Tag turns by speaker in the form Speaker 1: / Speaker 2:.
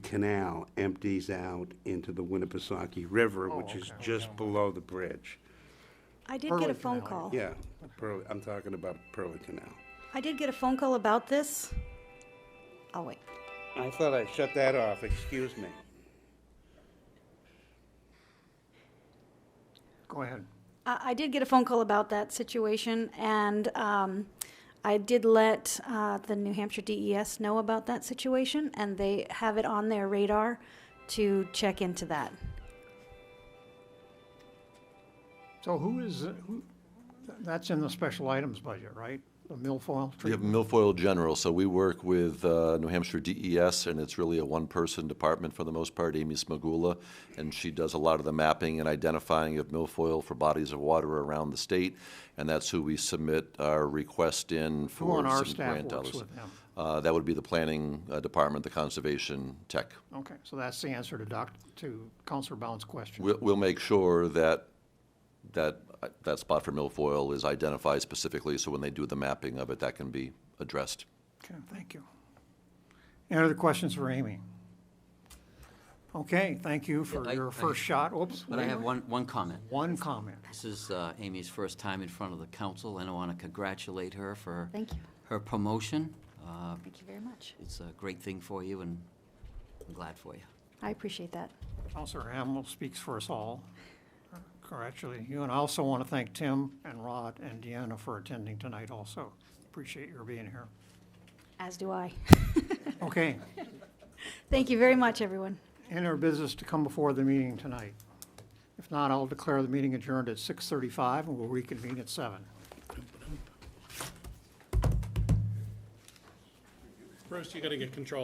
Speaker 1: canal empties out into the Winnipesaukee River, which is just below the bridge.
Speaker 2: I did get a
Speaker 3: Pearly
Speaker 2: phone
Speaker 3: Canal.
Speaker 2: call.
Speaker 1: Yeah, Pearl, I'm talking about Pearly Canal.
Speaker 2: I did get a phone call about this. I'll wait.
Speaker 1: I thought I shut that off, excuse me.
Speaker 3: Go ahead.
Speaker 2: I, I did get a phone call about that situation, and um, I did let uh, the New Hampshire DES know about that situation, and they have it on their radar to check into that.
Speaker 3: So who is, uh, who, that's in the special items budget, right? The milfoil
Speaker 4: We have
Speaker 3: treatment?
Speaker 4: Milfoil General, so we work with uh, New Hampshire DES, and it's really a one-person department for the most part, Amy Smagula, and she does a lot of the mapping and identifying of milfoil for bodies of water around the state, and that's who we submit our request in
Speaker 3: Who
Speaker 4: for
Speaker 3: on our
Speaker 4: some
Speaker 3: staff works
Speaker 4: grant dollars.
Speaker 3: with them?
Speaker 4: Uh, That would be the Planning uh, Department, the Conservation Tech.
Speaker 3: Okay, so that's the answer to Doc, to Counselor Bound's question.
Speaker 4: We'll, we'll make sure that, that, uh, that spot for milfoil is identified specifically, so when they do the mapping of it, that can be addressed.
Speaker 3: Okay, thank you. Any other questions for Amy? Okay, thank you for
Speaker 5: I-
Speaker 3: your
Speaker 5: I-
Speaker 3: first shot. Oops.
Speaker 5: But I
Speaker 3: wait a
Speaker 5: have
Speaker 3: minute.
Speaker 5: one, one comment.
Speaker 3: One comment.
Speaker 5: This is uh, Amy's first time in front of the council, and I want to congratulate her for
Speaker 2: Thank you.
Speaker 5: her promotion. Uh,
Speaker 2: Thank you very much.
Speaker 5: It's a great thing for you, and I'm glad for you.
Speaker 2: I appreciate that.
Speaker 3: Counselor Hamel speaks for us all. Congratulate you, and I also want to thank Tim and Rod and Deanna for attending tonight also. Appreciate your being here.
Speaker 2: As do I.
Speaker 3: Okay,
Speaker 2: Thank you very much, everyone.
Speaker 3: any other business to come before the meeting tonight? If not, I'll declare the meeting adjourned at 6:35, and we'll reconvene at 7.
Speaker 6: Bruce, you gotta get control.